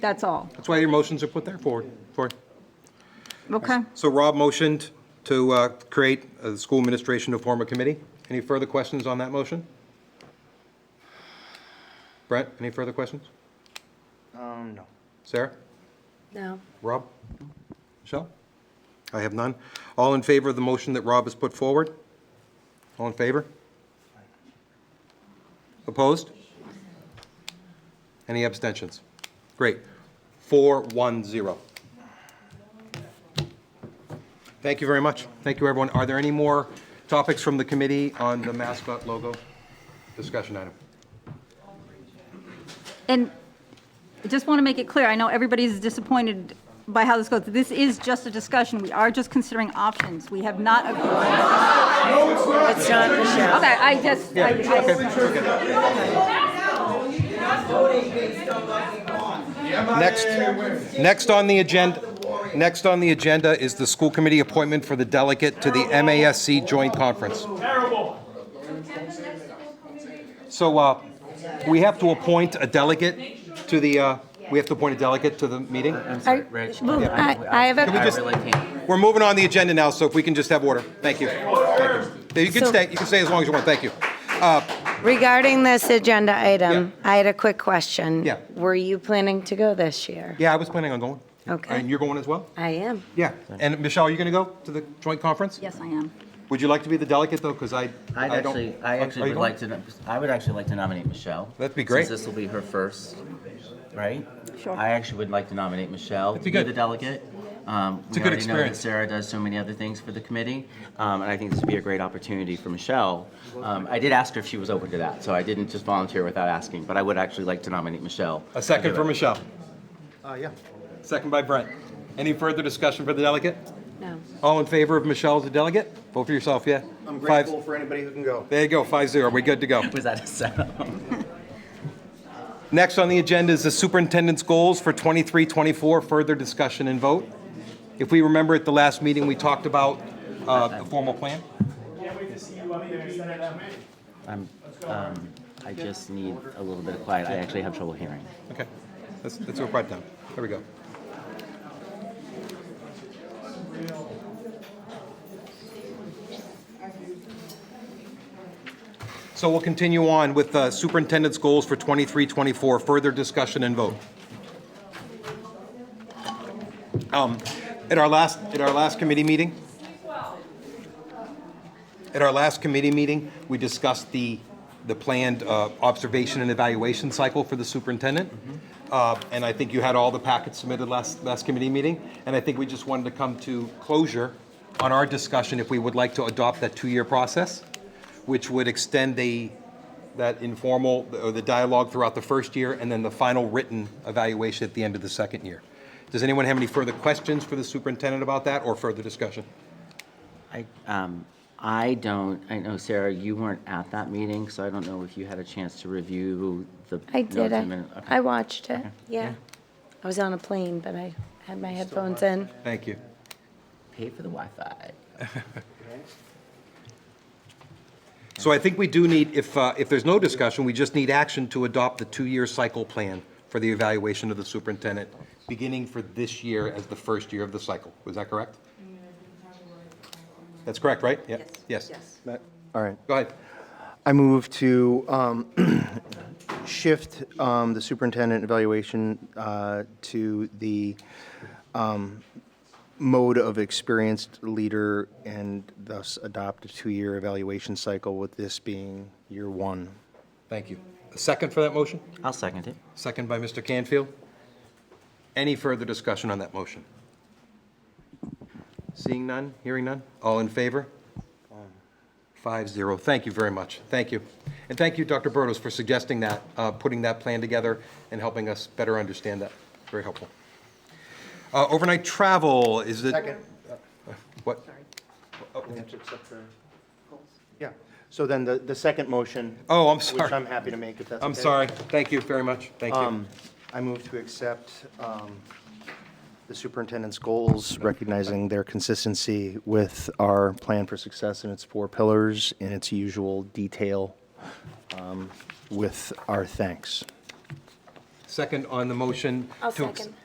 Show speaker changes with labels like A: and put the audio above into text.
A: That's all.
B: That's why your motions are put there for, for.
A: Okay.
B: So Rob motioned to uh, create a school administration to form a committee. Any further questions on that motion? Brent, any further questions?
C: Um, no.
B: Sarah?
D: No.
B: Rob? Michelle? I have none. All in favor of the motion that Rob has put forward? All in favor? Opposed? Any abstentions? Great. Four, one, zero. Thank you very much. Thank you, everyone. Are there any more topics from the committee on the mascot logo discussion item?
A: And I just want to make it clear, I know everybody's disappointed by how this goes. This is just a discussion. We are just considering options. We have not agreed.
D: It's not Michelle.
A: Okay, I just, I- I-
B: Next, next on the agenda, next on the agenda is the school committee appointment for the delegate to the MASC joint conference. Terrible. So, uh, we have to appoint a delegate to the, uh, we have to appoint a delegate to the meeting?
A: I, well, I I have
B: we
A: a,
B: just- We're moving on the agenda now, so if we can just have order. Thank you. Thank you You can
D: So-
B: stay, you can stay as long as you want, thank you.
D: Regarding this agenda item, I had a quick question.
B: Yeah.
D: Were you planning to go this year?
B: Yeah, I was planning on going.
D: Okay.
B: And you're going as well?
D: I am.
B: Yeah. And Michelle, are you going to go to the joint conference?
A: yes, I am.
B: Would you like to be the delegate, though? Because I,
E: I'd
B: I don't-
E: actually,
B: Are
E: I
B: you
E: actually would
B: going?
E: like to, nom- I would actually like to nominate Michelle.
B: That'd be great.
E: Since this will be her first, right?
A: Sure.
E: I actually would like to nominate Michelle.
B: be good.
E: the delegate. Um,
B: a good
E: We already know
B: experience.
E: that Sarah does so many other things for the committee, um, and I think this would be a great opportunity for Michelle. Um, I did ask her if she was open to that, so I didn't just volunteer without asking, but I would actually like to nominate Michelle.
B: A second for Michelle. Uh, yeah. Second by Brent. Any further discussion for the delegate?
D: No.
B: All in favor of Michelle as a delegate? Vote for yourself, yeah?
C: I'm
B: Five-
C: grateful for anybody who can go.
B: There you go, five zero, we're good to go.
E: Was that a setup?
B: Next on the agenda is the superintendent's goals for 23-24. further discussion and vote. If we remember at the last meeting, we talked about uh, the formal plan.
E: I'm, um, I just need a little bit of quiet. I actually have trouble hearing.
B: Okay, let's, let's go right down. There we go. So we'll continue on with uh, superintendent's goals for 23, 24, further discussion and vote. Um, At our last, at our last committee meeting, at our last committee meeting, we discussed the, the planned uh, observation and evaluation cycle for the superintendent. Uh, And I think you had all the packets submitted last, last committee meeting. And I think we just wanted to come to closure on our discussion if we would like to adopt that two-year process, which would extend the, that informal, or the dialogue throughout the first year, and then the final written evaluation at the end of the second year. Does anyone have any further questions for the superintendent about that, or further discussion?
E: I, um, I don't, I know, Sarah, you weren't at that meeting, so I don't know if you had a chance to review the.
D: I did.
E: notes and
D: I,
E: minute- okay.
D: I watched it. Yeah. I was on a plane, but I had my headphones in.
B: Thank you.
E: Pay for the Wi-Fi.
B: So I think we do need, if, uh, if there's no discussion, we just need action to adopt the two-year cycle plan for the evaluation of the superintendent, beginning for this year as the first year of the cycle. Was that correct? That's correct, right? Yeah. Yes. Yes.
C: All right.
B: Go ahead.
C: I move to um, shift um, the superintendent evaluation uh, to the um, mode of experienced leader and thus adopt a two-year evaluation cycle with this being year one.
B: Thank you. A Second for that motion?
E: I'll second it.
B: Second by Mr. Canfield. Any further discussion on that motion? Seeing none, hearing none? All in favor? Five zero. Thank you very much. Thank you. And thank you, Dr. Burdos, for suggesting that, uh, putting that plan together and helping us better understand that. Very helpful. Uh, Overnight travel, is it? What? Oh.
C: Yeah, so then the, the second motion.
B: Oh, I'm
C: Which I'm
B: sorry.
C: happy to make if that's okay.
B: I'm sorry. Thank you very much. Thank you.
C: Um, I move to accept um, the superintendent's goals, recognizing their consistency with our plan for success and its four pillars in its usual detail um, with our thanks.
F: Second on the motion.
B: I'll
F: to ex-
B: second.